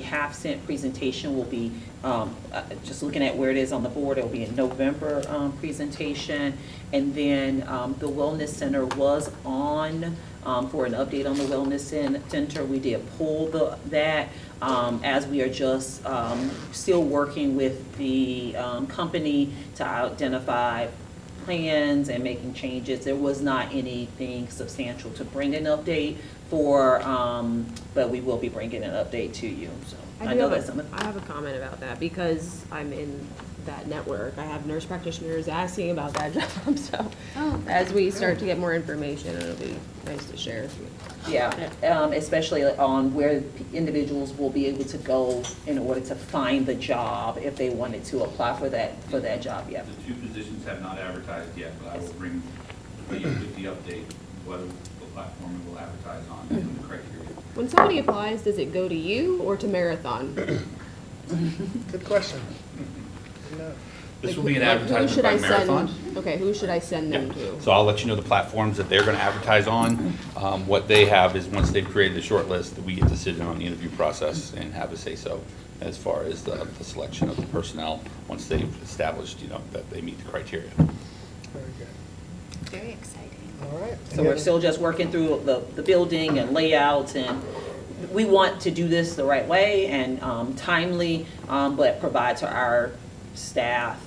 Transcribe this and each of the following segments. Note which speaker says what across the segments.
Speaker 1: half cent presentation will be, um, uh, just looking at where it is on the board, it'll be a November um, presentation. And then um, the Wellness Center was on um, for an update on the Wellness Cen- Center. We did pull the, that um, as we are just um, still working with the um, company to identify plans and making changes. There was not anything substantial to bring an update for, um, but we will be bringing an update to you, so. I
Speaker 2: do
Speaker 1: know
Speaker 2: have a-
Speaker 1: that's something.
Speaker 2: I have a comment about that because I'm in that network. I have nurse practitioners asking about that job, so
Speaker 3: Oh.
Speaker 2: as we start to get more information, it'll be nice to share.
Speaker 1: Yeah, um, especially on where individuals will be able to go in order to find the job if they wanted to apply for that, for that job, yeah.
Speaker 4: The two positions have not advertised yet, but I will bring you with the update, what the platform it will advertise on and the criteria.
Speaker 2: When somebody applies, does it go to you or to Marathon?
Speaker 5: Good question. No.
Speaker 4: This will be an
Speaker 2: Like, who
Speaker 4: advertisement
Speaker 2: should
Speaker 4: by
Speaker 2: I send-
Speaker 4: Marathon.
Speaker 2: Okay, who should I send them to?
Speaker 4: So I'll let you know the platforms that they're going to advertise on. Um, What they have is, once they've created a short list, we get to sit in on the interview process and have a say-so as far as the the selection of the personnel, once they've established, you know, that they meet the criteria.
Speaker 5: Very good.
Speaker 3: Very exciting.
Speaker 5: All right.
Speaker 1: So
Speaker 5: Any
Speaker 1: we're
Speaker 5: other-
Speaker 1: still just working through the, the building and layouts, and we want to do this the right way and um, timely, um, but provide to our staff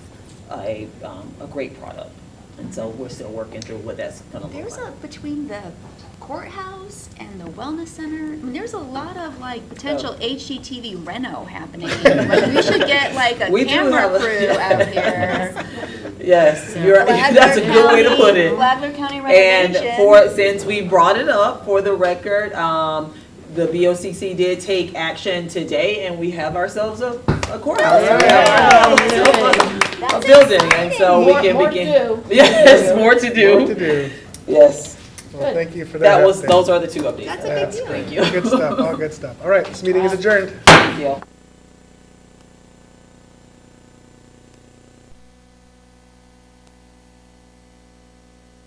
Speaker 1: a, um, a great product. And so we're still working through what that's gonna look like.
Speaker 3: There's a, between the courthouse and the wellness center, I mean, there's a lot of like potential HGTV reno happening. Like, we should get like a
Speaker 1: We do have a-
Speaker 3: camera crew out here.
Speaker 1: Yes, you're, that's a good way to put it.
Speaker 3: Blackhawk County
Speaker 1: And
Speaker 3: renovation.
Speaker 1: for, since we brought it up, for the record, um, the BOCC did take action today, and we have ourselves a a courthouse. We have ourselves A a
Speaker 3: That's
Speaker 1: building, and so we
Speaker 2: More-
Speaker 1: can
Speaker 2: more
Speaker 1: begin.
Speaker 2: to do.
Speaker 1: Yes, more to
Speaker 5: More
Speaker 1: do.
Speaker 5: to do.
Speaker 1: Yes,
Speaker 5: Well, thank you for that.
Speaker 1: that was,
Speaker 5: update.
Speaker 1: those are the two updates.
Speaker 3: That's a big deal.
Speaker 1: Thank you.
Speaker 5: Good stuff, all good stuff. All right, this meeting is adjourned.
Speaker 1: Thank you.